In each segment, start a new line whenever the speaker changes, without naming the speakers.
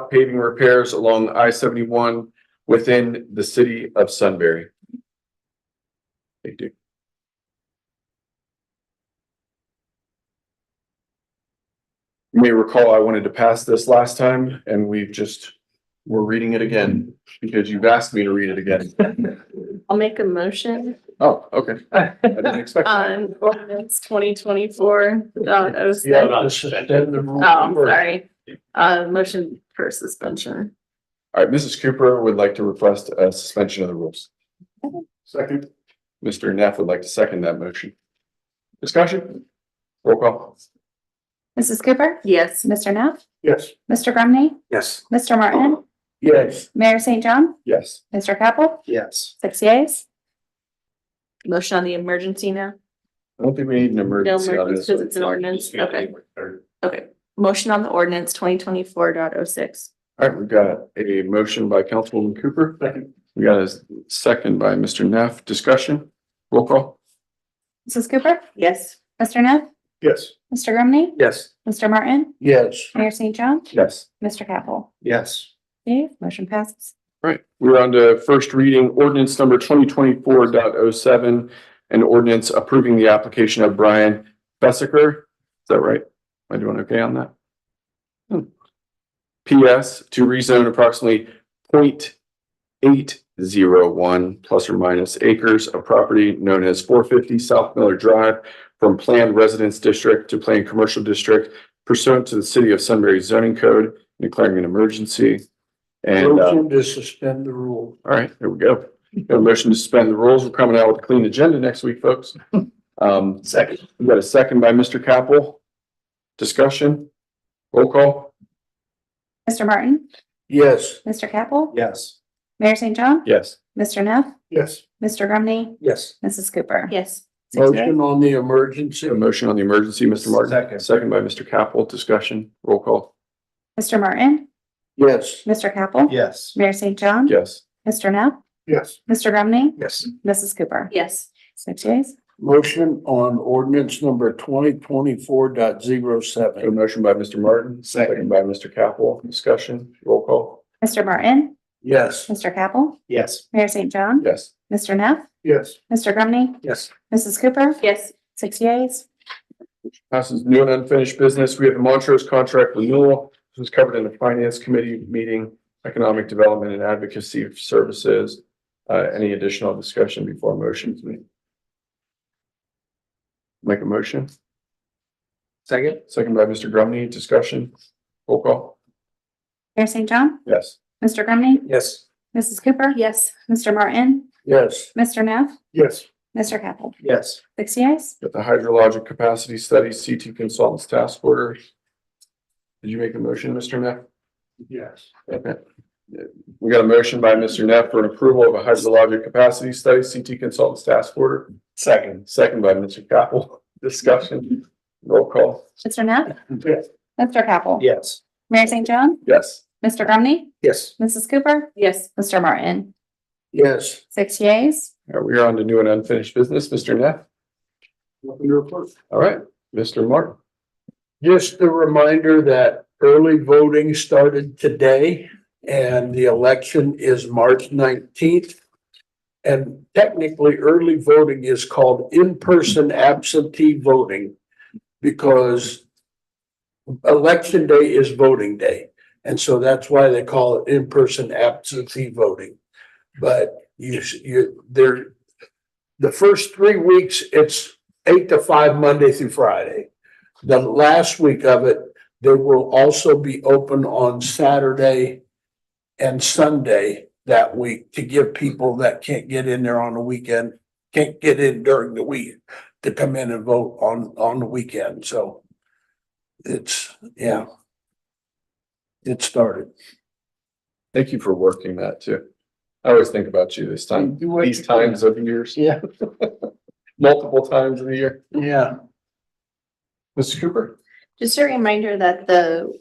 about paving repairs along I seventy-one within the city of Sunbury. They do. You may recall I wanted to pass this last time and we've just, we're reading it again because you've asked me to read it again.
I'll make a motion
Oh, okay. I didn't expect. that.
on ordinance twenty twenty-four dot oh
Yeah,
seven.
about suspend the
Oh,
rules.
I'm sorry. Uh, motion for suspension.
All right, Mrs. Cooper would like to request a suspension of the rules.
Second.
Mr. Neff would like to second that motion. Discussion? Roll call.
Mrs. Cooper?
Yes.
Mr. Neff?
Yes.
Mr. Grumney?
Yes.
Mr. Martin?
Yes.
Mayor St. John?
Yes.
Mr. Capel?
Yes.
Six yeas?
Motion on the emergency now?
I don't think we need an
No
emergency. on
emergency
this
because
one.
it's an ordinance. Okay, okay. Motion on the ordinance twenty twenty-four dot oh six.
All right, we've got a motion by Councilwoman Cooper.
Second.
We got a second by Mr. Neff. Discussion? Roll call.
Mrs. Cooper?
Yes.
Mr. Neff?
Yes.
Mr. Grumney?
Yes.
Mr. Martin?
Yes.
Mayor St. John?
Yes.
Mr. Capel?
Yes.
Okay, motion passes.
All right, we're on to first reading ordinance number twenty twenty-four dot oh seven. An ordinance approving the application of Brian Bessaker. Is that right? Am I doing okay on that? Hmm. PS to rezone approximately 0.801 plus or minus acres of property known as four fifty South Miller Drive from planned residence district to planned commercial district pursuant to the city of Sunbury zoning code and declaring an emergency. And uh,
Motion to suspend the rule.
all right, there we go. Got a motion to suspend the rules. We're coming out with a clean agenda next week, folks. Um,
Second.
we got a second by Mr. Capel. Discussion, roll call.
Mr. Martin?
Yes.
Mr. Capel?
Yes.
Mayor St. John?
Yes.
Mr. Neff?
Yes.
Mr. Grumney?
Yes.
Mrs. Cooper?
Yes.
Six yeas.
Motion on the emergency.
A motion on the emergency, Mr. Martin.
Second.
Second by Mr. Capel. Discussion, roll call.
Mr. Martin?
Yes.
Mr. Capel?
Yes.
Mayor St. John?
Yes.
Mr. Neff?
Yes.
Mr. Grumney?
Yes.
Mrs. Cooper?
Yes.
Six yeas?
Motion on ordinance number twenty twenty-four dot zero
Got A
seven.
motion by Mr. Martin.
Second.
By Mr. Capel. Discussion, roll call.
Mr. Martin?
Yes.
Mr. Capel?
Yes.
Mayor St. John?
Yes.
Mr. Neff?
Yes.
Mr. Grumney?
Yes.
Mrs. Cooper?
Yes.
Six yeas.
Passes new and unfinished business. We have the Montrose contract renewal. This was covered in the finance committee meeting, economic development and advocacy services. Uh, any additional discussion before motions made? Make a motion.
Second.
Second by Mr. Grumney, discussion. Roll call.
Mayor St. John?
Yes.
Mr. Grumney?
Yes.
Mrs. Cooper?
Yes.
Mr. Martin?
Yes.
Mr. Neff?
Yes.
Mr. Capel?
Yes.
Six yeas.
Got the hydrologic capacity study, CT consultants task order. Did you make a motion, Mr. Neff?
Yes.
Okay. We got a motion by Mr. Neff for an approval of a hydrologic capacity study, CT consultants task order. Second. Second by Mr. Capel. Discussion. Roll call.
Mr. Neff?
Yes.
Mr. Capel?
Yes.
Mayor St. John?
Yes.
Mr. Grumney?
Yes.
Mrs. Cooper?
Yes.
Mr. Martin?
Yes.
Six yeas.
All right, we are on to new and unfinished business. Mr. Neff. All right, Mr. Martin.
Just a reminder that early voting started today and the election is March nineteenth. And technically, early voting is called in-person absentee voting because election day is voting day. And so that's why they call it in-person absentee voting. But you, you, there, the first three weeks, it's eight to five, Monday through Friday the last week of it, they will also be open on Saturday and Sunday that week to give people that can't get in there on the weekend, can't get in during the week to come in and vote on, on the weekend. So it's, yeah. It started.
Thank you for working that too. I always think about you this time,
You work-
these times of years,
Yeah.
multiple times of the year.
Yeah.
Mr. Cooper?
Just a reminder that the,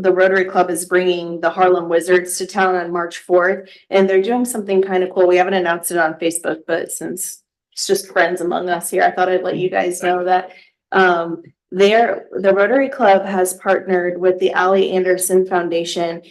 the Rotary Club is bringing the Harlem Wizards to town on March fourth. And they're doing something kind of cool. We haven't announced it on Facebook, but since it's just friends among us here, I thought I'd let you guys know that. Um, there, the Rotary Club has partnered with the Ally Anderson Foundation